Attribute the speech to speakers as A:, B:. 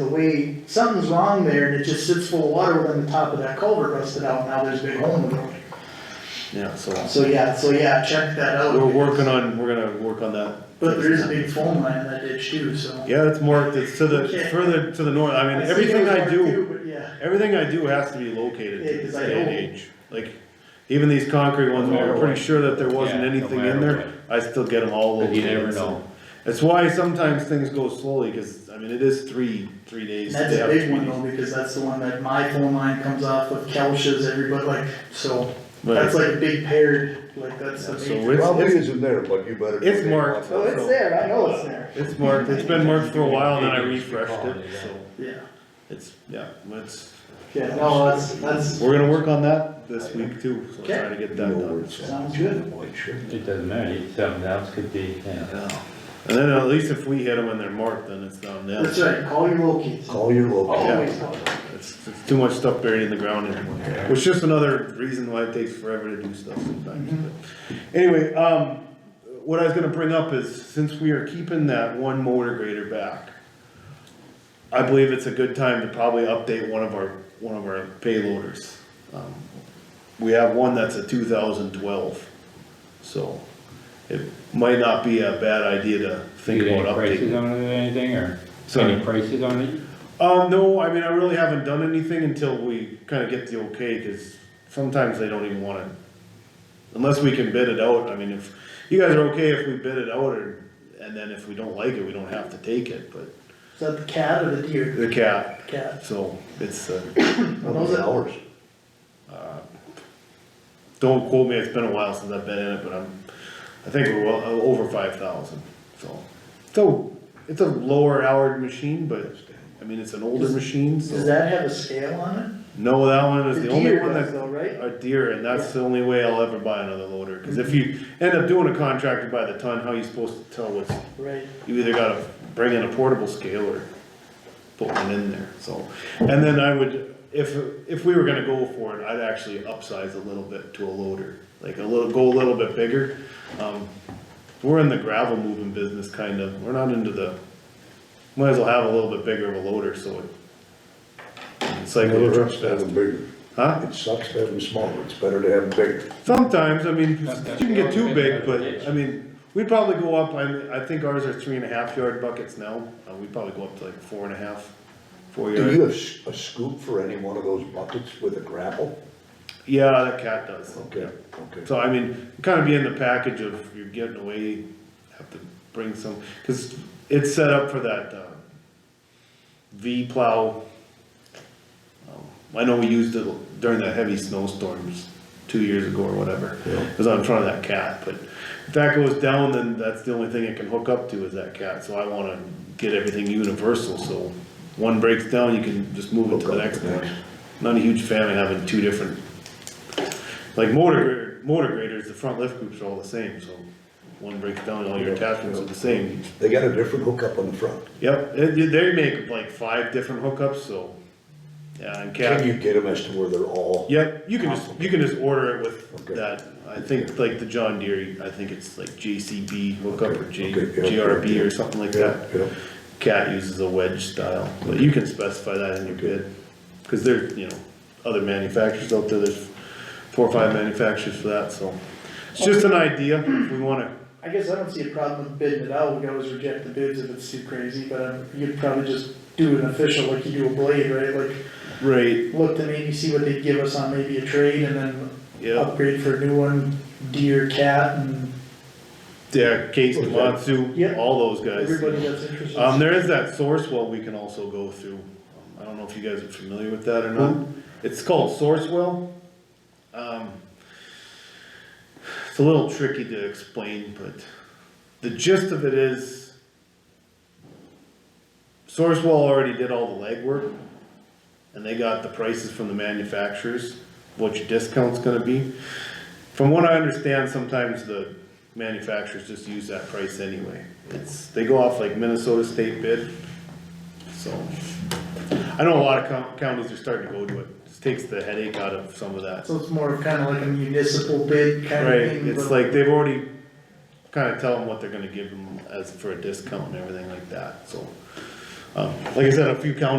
A: the way, something's wrong there, and it just sits full of water within the top of that culvert rusted out, now there's a big hole in the road.
B: Yeah, so
A: So yeah, so yeah, check that out.
B: we're working on, we're gonna work on that.
A: But there is a big phone line in that ditch too, so.
B: Yeah, it's more, it's to the,
A: Okay.
B: further to the north, I mean,
A: see
B: everything
A: those
B: I
A: are
B: do,
A: too, But yeah,
B: everything I do has to be located
A: Yeah,
B: to
A: 'cause
B: this
A: I
B: day and
A: know.
B: age. Like, even these concrete ones,
C: No
B: we
C: matter
B: were pretty
C: what.
B: sure that there wasn't
C: Yeah, no
B: anything in
C: matter
B: there, I still get them all
C: But
B: located.
C: you never
B: so.
C: know.
B: That's why sometimes things go slowly, cause I mean, it is three, three days.
A: and that's
B: they
A: a
B: have
A: big
B: three
A: one
B: days.
A: though, because that's the one that my phone line comes off of Kelch's, everybody like, so.
B: But-
A: That's like a big paired, like that's the
B: Yeah, so
A: major.
B: we're- It's-
D: Probably
B: it's-
D: isn't there, but you better. go
B: it's
D: take
B: marked.
D: one.
A: Oh, it's there, I know it's there,
B: It's marked, it's been marked for a while and then I refreshed it, so
A: yeah,
B: it's, yeah, it's,
A: yeah, no, that's, that's,
B: we're gonna work on that this week too, so
A: Okay.
B: trying to get that done.
A: sounds good.
C: It doesn't matter, something else could be, yeah.
B: Yeah, and then at least if we hit them and they're marked, then it's not them.
A: That's right, call your locals,
D: Call your local.
A: always call.
B: It's, it's too much stuff buried in the ground anyway, which is just another reason why it takes forever to do stuff sometimes, but. Anyway, um, what I was gonna bring up is, since we are keeping that one motor grader back, I believe it's a good time to probably update one of our, one of our payloaders. Um, We have one that's a two thousand twelve, so it might not be a bad idea to think
C: You get
B: about
C: any
B: updating.
C: prices on it or anything, or
B: Sorry?
C: any prices on it?
B: Um, no, I mean, I really haven't done anything until we kinda get the okay, cause sometimes they don't even wanna, unless we can bid it out, I mean, if, you guys are okay if we bid it out, or, and then if we don't like it, we don't have to take it, but
A: Is that the cat or the deer?
B: the cat,
A: Cat.
B: so, it's, uh,
D: How many hours?
B: don't quote me, it's been a while since I've been in it, but I'm, I think we're well, uh, over five thousand, so. So, it's a lower hour machine, but, I mean, it's an older
A: Does-
B: machine, so.
A: Does that have a scale on
B: No, that one
A: it?
B: is the
A: The
B: only
A: deer
B: one
A: does
B: that's
A: though, right?
B: a deer, and that's the only way I'll ever buy another loader, cause if you end up doing a contractor by the ton, how are you supposed to tell what's,
A: Right.
B: you either gotta bring in a portable scale or put one in there, so. And then I would, if, if we were gonna go for it, I'd actually upsize a little bit to a loader, like a little, go a little bit bigger. Um, we're in the gravel moving business kind of, we're not into the, might as well have a little bit bigger of a loader, so it. It's like.
D: It sucks to have them bigger.
B: Huh?
D: It sucks to have them smaller. It's better to have them bigger.
B: Sometimes, I mean, you
C: Sometimes.
B: can get too big,
C: Yes.
B: but, I mean, we'd probably go up, I, I think ours are three and a half yard buckets now, uh, we'd probably go up to like four and a half, four
D: Do
B: yards.
D: you have s- a scoop for any one of those buckets with a grapple?
B: Yeah, that cat does.
D: Okay, okay.
B: So, I mean, kinda be in the package of you're getting away, have to bring some, cause it's set up for that, uh, V plow. Um, I know we used it during the heavy snowstorms two years ago or whatever, it was on front of that cat, but if that goes down, then that's the only thing it can hook up to is that cat, so I wanna get everything universal, so one breaks down, you can just move it to the
D: Hook up
B: next
D: the
B: one.
D: next.
B: Not a huge fan of having two different like motor, grader- motor graders, the front lift groups are all the same, so one breaks down, all your attachments are the same.
D: They got a different hookup on the front.
B: Yep, they, they make like five different hookups, so, yeah, and
D: Can
B: cap,
D: you get them as to where they're all?
B: yep, you can just, you can just order it with
D: Okay.
B: that. I think like the John Deere, I think it's like JCB hookup or J,
D: Okay, okay, yeah,
B: GRB
D: yeah.
B: or something like that.
D: Yeah.
B: Cat uses a wedge style, but you can specify that in your bid, cause there, you know, other manufacturers out there, there's four or five manufacturers for that, so. It's just an idea, if we wanna,
A: I guess I don't see a problem with bidding it out, we always reject the bids if it's too crazy, but um, you'd probably just do an official, like you do a blade, right? Like,
B: rate,
A: look to maybe see what they'd give us on maybe a trade and then
B: yeah,
A: upgrade for a new one, deer, cat, and
B: yeah, Case,
D: Okay.
B: Matsu,
A: Yeah.
B: all those
A: everybody
B: guys.
A: that's interested.
B: Um, there is that Sourcewell we can also go through, Um, I don't know if you guys are familiar with that or not, it's called Sourcewell. Um, it's a little tricky to explain, but the gist of it is Sourcewell already did all the legwork and they got the prices from the manufacturers, what your discount's gonna be. From what I understand, sometimes the manufacturers just use that price anyway. It's, they go off like Minnesota state bid, so. I know a lot of coun- counties are starting to go to it, just takes the headache out of some of that.
A: So it's more of kinda like a municipal bid kind
B: Right,
A: of thing.
B: it's
A: but-
B: like they've already kinda tell them what they're gonna give them as for a discount and everything like that, so. Um, Like I said, a few counties